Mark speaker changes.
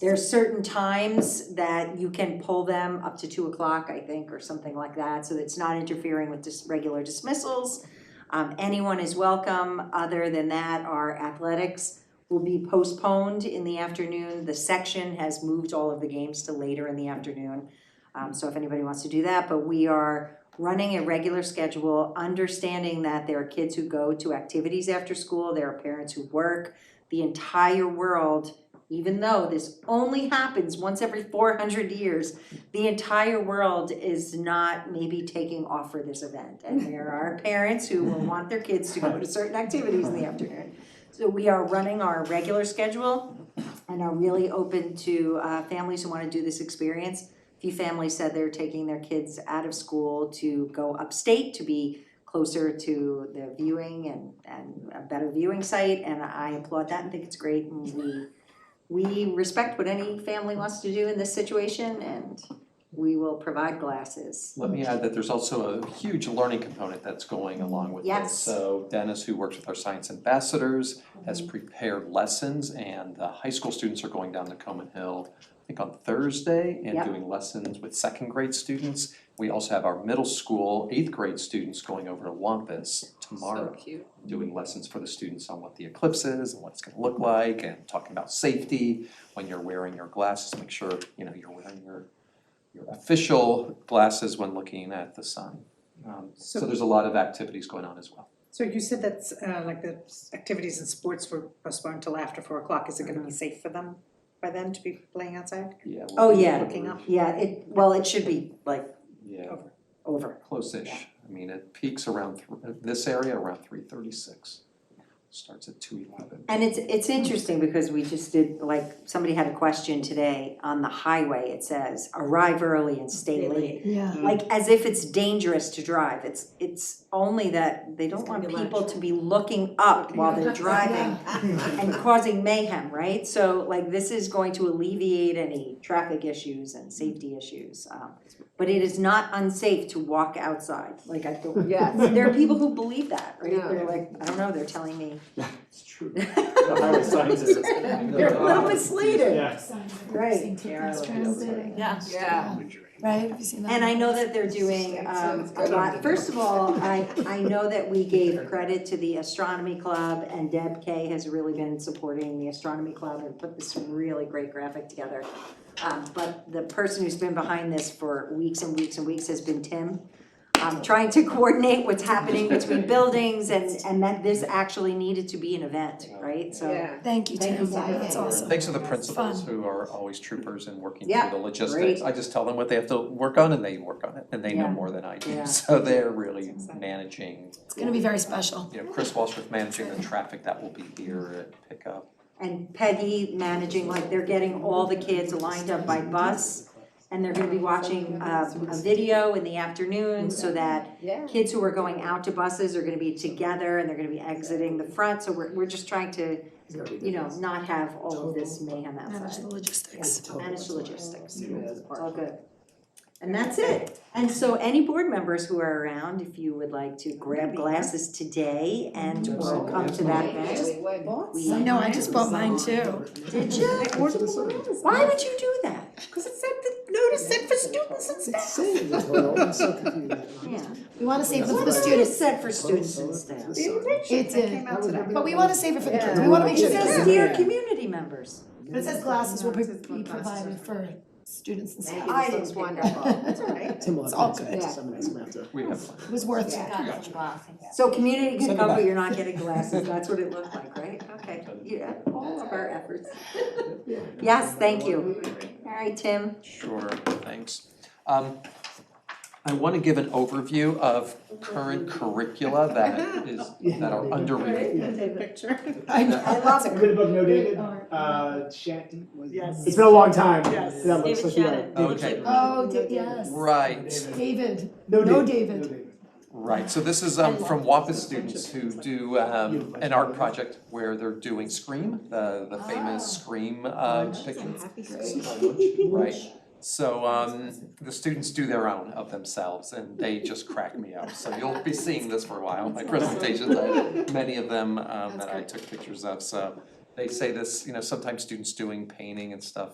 Speaker 1: There are certain times that you can pull them up to two o'clock, I think, or something like that, so it's not interfering with just regular dismissals. Um, anyone is welcome, other than that, our athletics will be postponed in the afternoon. The section has moved all of the games to later in the afternoon. Um, so if anybody wants to do that, but we are running a regular schedule, understanding that there are kids who go to activities after school, there are parents who work. The entire world, even though this only happens once every four hundred years, the entire world is not maybe taking off for this event. And there are parents who will want their kids to go to certain activities in the afternoon. So we are running our regular schedule and are really open to uh, families who want to do this experience. A few families said they're taking their kids out of school to go upstate to be closer to the viewing and, and a better viewing site. And I applaud that and think it's great. And we, we respect what any family wants to do in this situation and we will provide glasses.
Speaker 2: Let me add that there's also a huge learning component that's going along with this.
Speaker 1: Yes.
Speaker 2: So Dennis, who works with our science ambassadors, has
Speaker 1: Mm-hmm.
Speaker 2: prepared lessons and the high school students are going down to Coman Hill, I think on Thursday, and
Speaker 1: Yep.
Speaker 2: doing lessons with second grade students. We also have our middle school, eighth grade students going over to Wampus tomorrow,
Speaker 3: cute.
Speaker 2: doing lessons for the students on what the eclipse is and what it's gonna look like and talking about safety when you're wearing your glasses, make sure, you know, you're wearing your your official glasses when looking at the sun. Um, so
Speaker 4: So-
Speaker 2: there's a lot of activities going on as well.
Speaker 4: So you said that's uh like the s- activities and sports were postponed till after four o'clock, is it gonna be safe for them by then to be playing outside?
Speaker 2: Yeah.
Speaker 1: Oh,
Speaker 2: we'll be
Speaker 1: yeah.
Speaker 4: Looking up.
Speaker 1: Yeah, it, well, it should be like
Speaker 2: Yeah,
Speaker 1: over.
Speaker 2: close-ish. I mean, it peaks around th- this area around three thirty-six. Starts at two eleven.
Speaker 1: And it's, it's interesting because we just did, like, somebody had a question today on the highway, it says, arrive early and stay late.
Speaker 5: Yeah.
Speaker 3: Mm-hmm.
Speaker 1: Like, as if it's dangerous to drive, it's, it's only that they don't
Speaker 3: It's gonna
Speaker 1: want
Speaker 3: be lunch.
Speaker 1: people to be looking up while they're driving and causing mayhem, right? So like, this is going to alleviate any traffic issues and
Speaker 3: Mm-hmm.
Speaker 1: safety issues. um, But it is not unsafe to walk outside, like, I don't,
Speaker 3: Yes.
Speaker 1: there are people who believe that, right?
Speaker 3: Yeah.
Speaker 1: They're like, I don't know, they're telling me.
Speaker 6: It's true. The highway signs is.
Speaker 1: They're a little bit slated.
Speaker 6: Yes.
Speaker 1: Right.
Speaker 3: Yeah. Yeah.
Speaker 5: Right, have you seen that?
Speaker 1: And I know that they're doing um a lot, first of all, I I know that we gave credit to the astronomy club and Deb Kay has really been supporting the astronomy club and put this really great graphic together. Um but the person who's been behind this for weeks and weeks and weeks has been Tim. Um trying to coordinate what's happening between buildings and and that this actually needed to be an event, right? So
Speaker 5: Thank you,
Speaker 1: Thank
Speaker 5: Tim,
Speaker 1: you, Tim.
Speaker 5: that's awesome.
Speaker 2: Thanks to the principals
Speaker 5: Fun.
Speaker 2: who are always troopers and working
Speaker 1: Yeah,
Speaker 2: through the logistics.
Speaker 1: great.
Speaker 2: I just tell them what they have to work on and they work on it and they know
Speaker 1: Yeah.
Speaker 2: more than I do.
Speaker 1: Yeah.
Speaker 2: So they're really
Speaker 4: That's exciting.
Speaker 2: managing,
Speaker 5: It's gonna be very special.
Speaker 2: you know, Chris Walshworth managing the traffic that will be here at pickup.
Speaker 1: and Peggy managing, like they're getting all the kids lined up by bus. And they're gonna be watching uh, a video in the afternoon so that
Speaker 3: Yeah.
Speaker 1: kids who are going out to buses are gonna be together and they're gonna be exiting the front. So we're, we're just trying to, you know, not have all of this mayhem
Speaker 5: Manage
Speaker 1: outside.
Speaker 5: the logistics.
Speaker 1: Manage the logistics, it's all good. And that's it. And so any board members who are around, if you would like to grab glasses today and or come to that event.
Speaker 5: I know, I just bought mine too.
Speaker 1: Did you?
Speaker 4: I ordered the ones,
Speaker 1: Why would you do that?
Speaker 4: cause it said the notice said for students and
Speaker 6: It's
Speaker 4: staff.
Speaker 6: insane, this world, I'm so confused.
Speaker 1: Yeah.
Speaker 5: We wanna save it for
Speaker 1: What
Speaker 5: the
Speaker 1: is
Speaker 5: students,
Speaker 1: said for students and staff?
Speaker 4: The invitation
Speaker 5: It
Speaker 4: that
Speaker 5: did.
Speaker 4: came out today.
Speaker 5: but we wanna save it for the kids, we
Speaker 6: Yeah.
Speaker 5: wanna make
Speaker 1: It
Speaker 5: sure the kids.
Speaker 1: says dear community members.
Speaker 5: But it says glasses will be
Speaker 4: It says
Speaker 5: be provided for students and staff.
Speaker 1: I didn't
Speaker 3: looks
Speaker 1: pick
Speaker 3: wonderful.
Speaker 4: That's all right.
Speaker 6: Tim will
Speaker 5: It's
Speaker 6: have
Speaker 5: all
Speaker 6: to
Speaker 5: good.
Speaker 6: answer some of this matter.
Speaker 2: We have fun.
Speaker 5: It was worth it.
Speaker 1: So community can
Speaker 6: Send
Speaker 1: come,
Speaker 6: it
Speaker 1: but
Speaker 6: back.
Speaker 1: you're not getting glasses, that's what it looked like, right? Okay, yeah, all of our efforts. Yes, thank you. All right, Tim.
Speaker 2: Sure, thanks. Um, I want to give an overview of current curricula that is, that are underrated.
Speaker 4: Picture.
Speaker 1: I love
Speaker 6: A
Speaker 1: it.
Speaker 6: good book, no dated, uh, Shanty was. It's been a long time.
Speaker 4: Yes.
Speaker 6: That looks like you are.
Speaker 2: Okay,
Speaker 5: Oh, di- yes.
Speaker 2: right,
Speaker 5: David,
Speaker 6: No
Speaker 5: No
Speaker 6: David.
Speaker 5: David.
Speaker 2: right. So this is um, from WAPA students who do um, an art project where they're doing Scream, the, the famous Scream uh, depiction. Right, so um, the students do their own of themselves and they just crack me up. So you'll be seeing this for a while, my presentations, I have many of them um, that I took pictures of, so. They say this, you know, sometimes students doing painting and stuff